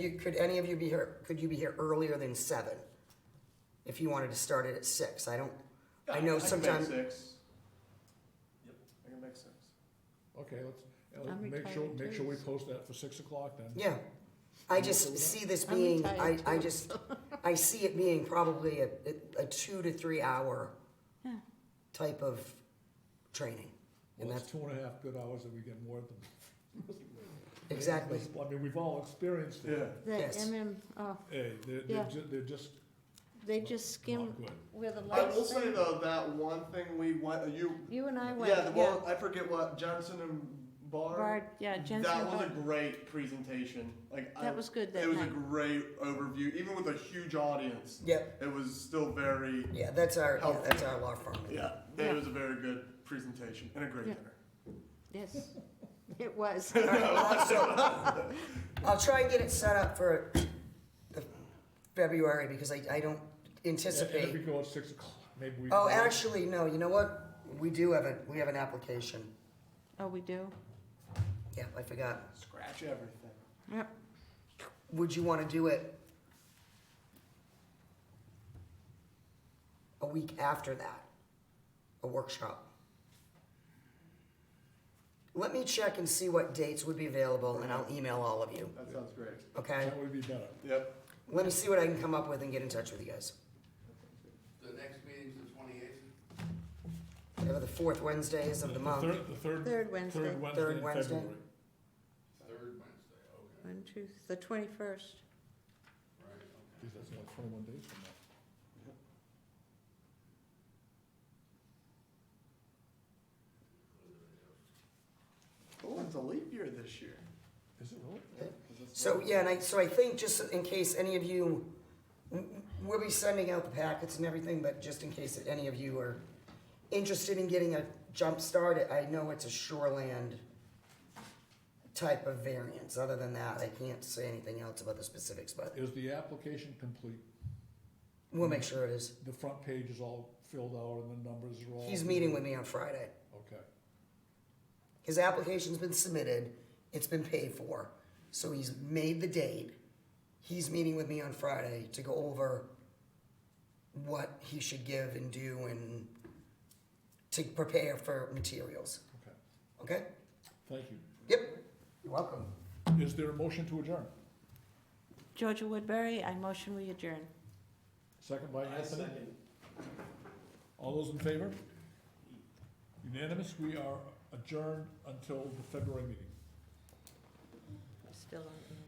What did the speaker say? You, could any of you be here, could you be here earlier than seven? If you wanted to start it at six, I don't, I know sometimes- I can make six. Yep, I can make six. Okay, let's, uh, I'm make sure, retired make sure we too. post that for six o'clock then. yeah. I just see this being, I, I just, I see it being probably a, a two to three hour Yeah. type of training. And Well, that's, that's two and a half good hours that we get more than. exactly, I mean, we've all experienced Yeah, it. The Yes. MM, oh, Hey, they're, they're Yeah. ju- they're just they just skim not good. where the I lights. will say are. though, that one thing we went, you, You and I went, yeah, the yeah, one, I forget what, Johnson and Bar? Bard, yeah, That was a Jensen, great presentation, like, I, that was good that it was a night. great overview, even with a huge audience, yeah, it was still very, yeah, that's our, yeah, that's our law firm. yeah, Yeah. it was a very good presentation and a great Yeah. dinner. Yes, it was. All right, uh, so, I'll try and get it set up for the February, because I, I don't And and if anticipate we go at six o'clock, maybe we. Oh, actually, no, you know what? We do have a, we have an application. Oh, we do? Yeah, I forgot. Scratch everything. Yep. Would you wanna do it? A week after that? A workshop? Let me check and see what dates would be available and I'll email all of you, That sounds great. okay? That would be better. Yep. Let me see what I can come up with and get in touch with you guys. The next meeting's the twenty-eighth? Whatever the fourth Wednesday is of the month. third- The third, Third Wednesday, third Wednesday Third in Wednesday. February. Third Wednesday, okay, one, two, the twenty-first. right, okay. Geez, that's like twenty-one days from now. Oh, it's a leap year this year. Is it really? Yeah, 'cause it's- So, yeah, and I, so I think just in case any of you, we'll be sending out the packets and everything, but just in case that any of you are interested in getting a jump start, I know it's a shoreland type of variance. Other than that, I can't say anything else about the specifics, but Is the application complete? we'll make sure it is. The front page is all filled out and the numbers are all. He's meeting with me on Friday. Okay, His application's been submitted, it's been paid for, so he's made the date. He's meeting with me on Friday to go over what he should give and do and to prepare for materials, okay. okay? Thank you. Yep. You're welcome. Is there a motion to adjourn? Georgia Woodbury, I motion we adjourn. Second by Anthony? All those in favor? Unanimous, we are adjourned until the February meeting. Still on.